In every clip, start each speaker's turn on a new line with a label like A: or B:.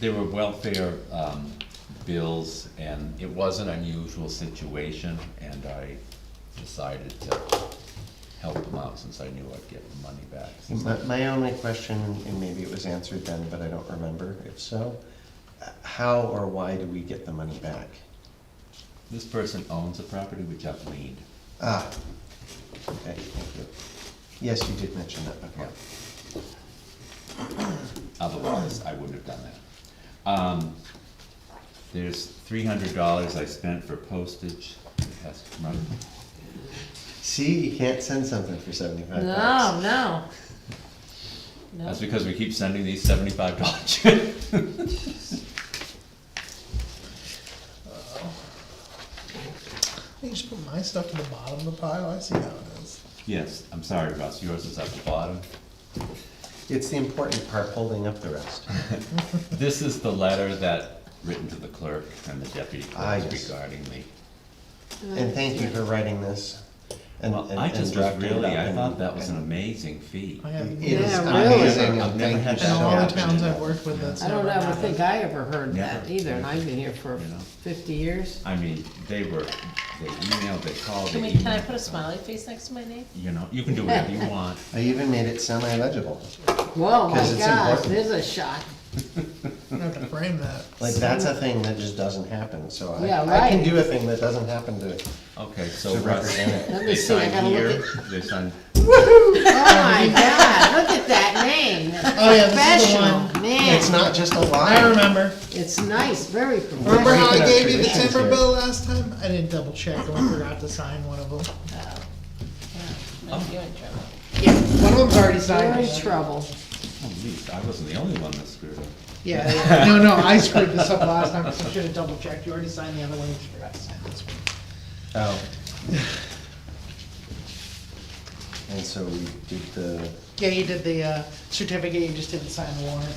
A: there were welfare, um, bills, and it was an unusual situation, and I decided to help them out since I knew I'd get the money back.
B: But my only question, and maybe it was answered then, but I don't remember if so, uh, how or why do we get the money back?
A: This person owns the property, which I've leaned.
B: Ah, okay, thank you. Yes, you did mention that before.
A: Otherwise, I wouldn't have done that. Um, there's three hundred dollars I spent for postage, that has to run.
B: See, you can't send something for seventy-five bucks.
C: No, no. No.
A: That's because we keep sending these seventy-five dollar checks.
D: You just put my stuff to the bottom of the pile, I see how it is.
A: Yes, I'm sorry, Russ, yours is at the bottom.
B: It's the important part, holding up the rest.
A: This is the letter that, written to the clerk and the deputy
B: Ah,
A: clerk
B: yes.
A: regarding me.
B: And thank you for writing this. and-
A: Well,
B: and-
A: I
B: and
A: just was
B: drafting it
A: really,
B: up
A: I
B: and-
A: thought that was an amazing fee.
D: I have,
B: It
D: in
B: is
C: Oh, Yeah,
B: amazing,
A: really.
B: and
A: I've never
B: thank
A: had
B: you
A: that
B: so
D: all the
B: much.
D: towns I've worked with, that's
C: I
D: never
C: don't ever
D: happened.
C: think I ever heard that
A: Never.
C: either, and I've been here for
A: You know.
C: fifty years.
A: I mean, they were, they emailed, they called,
E: Can
A: they
E: we, can I put a
A: emailed.
E: smiley face next to my name?
A: You know, you can do whatever you want.
B: I even made it semi-legible.
C: Whoa, my
B: 'Cause it's
C: gosh,
B: important.
C: there's a shock.
D: I have to frame that.
B: Like, that's a thing that just doesn't happen, so I,
C: Yeah,
B: I can
C: right.
B: do a thing that doesn't happen to,
A: Okay, so
B: to
A: Russ,
B: represent it.
C: Let me
A: they
C: see,
A: sign
C: I gotta
A: here,
C: look at,
A: they sign,
C: oh my god, look at that name.
D: Oh, yeah, this is the
C: Professional,
D: one.
B: It's
C: man.
B: not just a
D: I
B: line.
D: remember.
C: It's nice, very
D: Remember
C: professional.
D: how I
B: Speaking of
D: gave you the
B: traditions
D: timber
B: here.
D: bill last time? I didn't double check, I forgot to sign one of them.
E: Oh, yeah, now you're in trouble.
D: Yeah, one of them's already
C: We're in trouble.
A: oh, geez, I wasn't the only one that screwed up.
D: Yeah, yeah. no, no, I screwed this up last time, so I should have double checked, you already signed the other one, you just forgot to sign this one.
B: Oh. And so we did the,
D: Yeah, you did the, uh, certificate, you just didn't sign the warrant.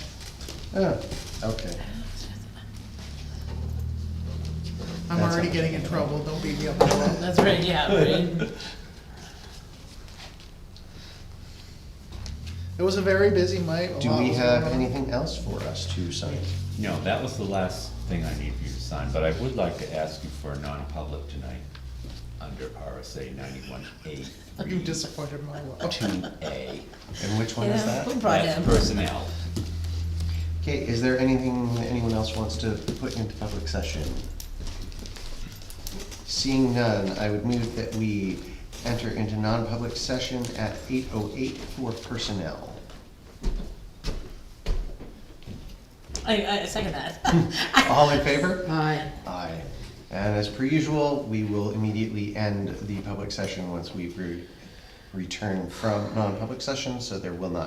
B: oh, okay.
D: I'm
B: That's
D: already
B: all.
D: getting in trouble, don't beat me up. Noah.
E: That's right, yeah, right.
D: It was a very busy night. a
B: Do
D: lot
B: we
D: was
B: have
D: going on.
B: anything else for us to sign?
A: No, that was the last thing I need for you to sign, but I would like to ask you for a non-public tonight, under RSA ninety-one A
D: You
A: three
D: disappointed my wife.
A: two A.
B: And which one is
E: Yeah,
B: that?
E: Who brought
A: That's
E: him?
A: personnel.
B: Okay, is there anything that anyone else wants to put into public session? Seeing none, I would move that we enter into non-public session at eight oh eight for personnel.
E: I, I second that.
B: All in favor?
C: Alright,
B: Aye. And as per usual, we will immediately end the public session once we've re- returned from non-public session, so there will not